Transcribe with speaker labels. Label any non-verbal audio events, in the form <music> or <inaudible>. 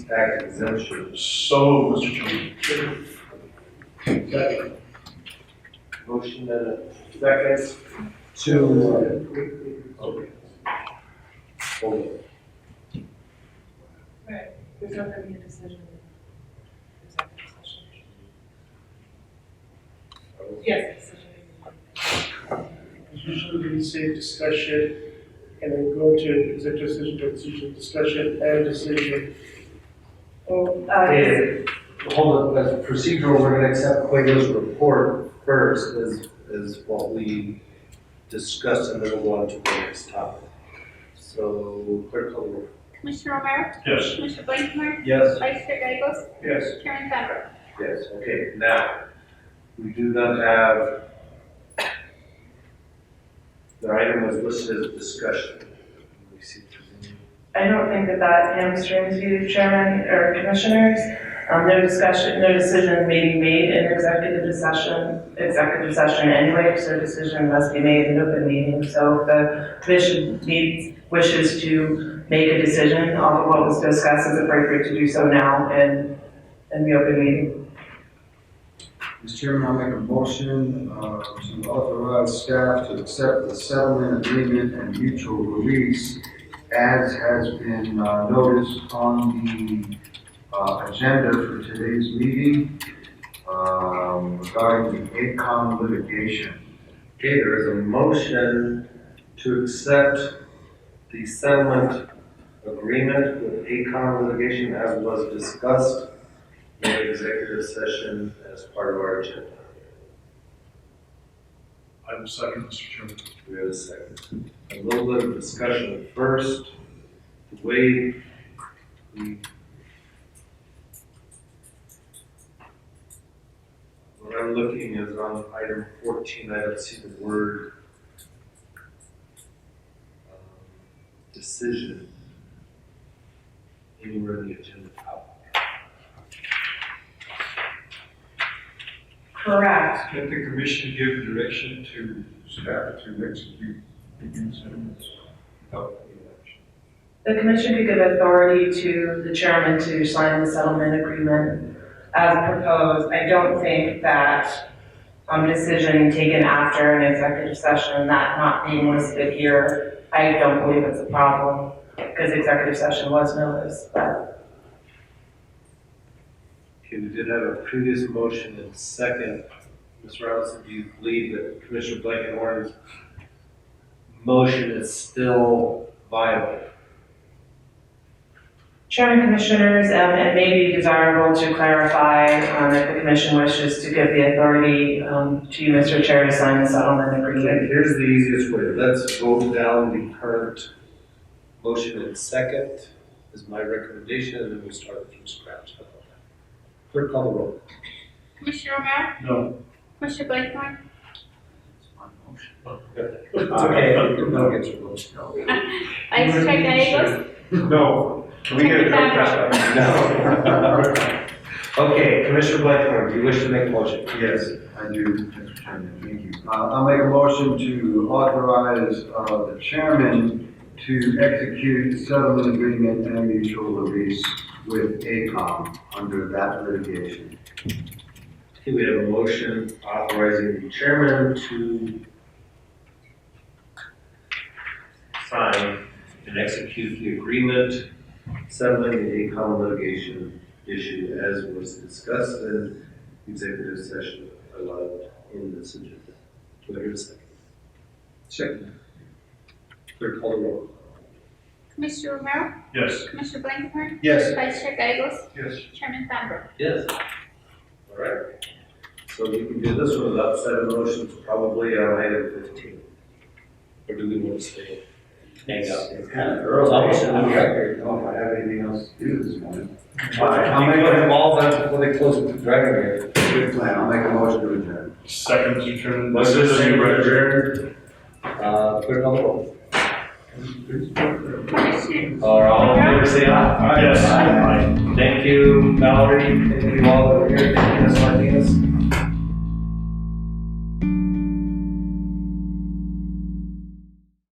Speaker 1: tax exemption.
Speaker 2: So, Mr. Chairman. Second.
Speaker 1: Motion and a second to, uh, okay. Hold it.
Speaker 3: Right, there's not gonna be a decision. in executive session. Yes, decision.
Speaker 4: usually we say discussion and then go to executive session, to decision, discussion and decision.
Speaker 3: Well, uh,
Speaker 1: Hey, Hold on, as procedural, we're gonna accept Quavo's report first as, as what we discussed and then we'll go on to the next topic. So, clerk call the roll.
Speaker 5: Commissioner Romero?
Speaker 2: Yes.
Speaker 5: Commissioner Blakenhart?
Speaker 1: Yes.
Speaker 5: Vice Chair Gagos?
Speaker 4: Yes.
Speaker 5: Chairman Bender?
Speaker 1: Yes, okay, now, we do not have, the item was listed as discussion. Let me see if there's any-
Speaker 6: I don't think that that hamstrings you, Chairman or Commissioners. Um, no discussion, no decision may be made in executive session, executive session anyway, so decision must be made in open meeting. So if the commission needs, wishes to make a decision on what was discussed, it's appropriate to do so now in, in the open meeting.
Speaker 7: Mr. Chairman, I'll make a motion uh, to authorize staff to accept the settlement agreement and mutual release as has been uh, noticed on the uh, agenda for today's meeting um, regarding the ACON litigation.
Speaker 1: Okay, there is a motion to accept the settlement agreement with ACON litigation as was discussed in the executive session as part of our agenda.
Speaker 2: I will second, Mr. Chairman.
Speaker 1: We have a second. A little bit of discussion first. The way we what I'm looking is on item fourteen, I don't see the word um, decision anywhere in the agenda.
Speaker 6: Correct.
Speaker 2: Let the commission give direction to staff to execute the consent without any action.
Speaker 6: The commission could give authority to the chairman to sign the settlement agreement as proposed. I don't think that, um, decision taken after an executive session, that not being listed here, I don't believe it's a problem, because executive session was noticed, but
Speaker 1: Okay, we did have a previous motion and second. Ms. Robinson, do you believe that Commissioner Blankenhorn's motion is still viable?
Speaker 6: Chairman Commissioners, um, it may be desirable to clarify um, if the commission wishes to give the authority um, to you, Mr. Chair, to sign the settlement agreement.
Speaker 1: Okay, here's the easiest way. Let's vote down the current motion and second is my recommendation, and then we start from scratch. How about that? Clerk call the roll.
Speaker 5: Commissioner Romero?
Speaker 2: No.
Speaker 5: Commissioner Blakenhart?
Speaker 7: It's my motion.
Speaker 1: It's okay. Uh, No one gets a vote.
Speaker 5: Vice Chair Gagos?
Speaker 2: No.
Speaker 5: Can we get a quick round?
Speaker 1: <laughs> No. Okay, Commissioner Blankenhorn, do you wish to make a motion?
Speaker 7: Yes, I do, Mr. Chairman, thank you. Uh, I'll make a motion to authorize, uh, the chairman to execute settlement agreement and mutual release with ACOM under that litigation.
Speaker 1: Okay, we have a motion authorizing the chairman to sign and execute the agreement settling the ACOM litigation issue as was discussed in executive session allowed in this agenda. Do I hear a second? Second. Clerk call the roll.
Speaker 5: Commissioner Romero?
Speaker 2: Yes.
Speaker 5: Commissioner Blakenhart?
Speaker 1: Yes.
Speaker 5: Vice Chair Gagos?
Speaker 2: Yes.
Speaker 5: Chairman Bender?
Speaker 1: Yes. All right. So we can do this one without set of motions, probably on item fifteen. Or do we want to stay? Hang out.
Speaker 7: It's kind of early. I'm here. Don't have anything else to do this morning.
Speaker 1: I'll make it involved before they close with the dragon here.
Speaker 7: Good plan, I'll make a motion to adjourn.
Speaker 2: Second, Mr. Chairman.
Speaker 1: Uh, clear on the roll.
Speaker 5: Commissioner
Speaker 1: All right, all in favor, say aye.
Speaker 2: Yes.
Speaker 1: Thank you, Valerie, thank you all over here, thank you, Ms. Martinez.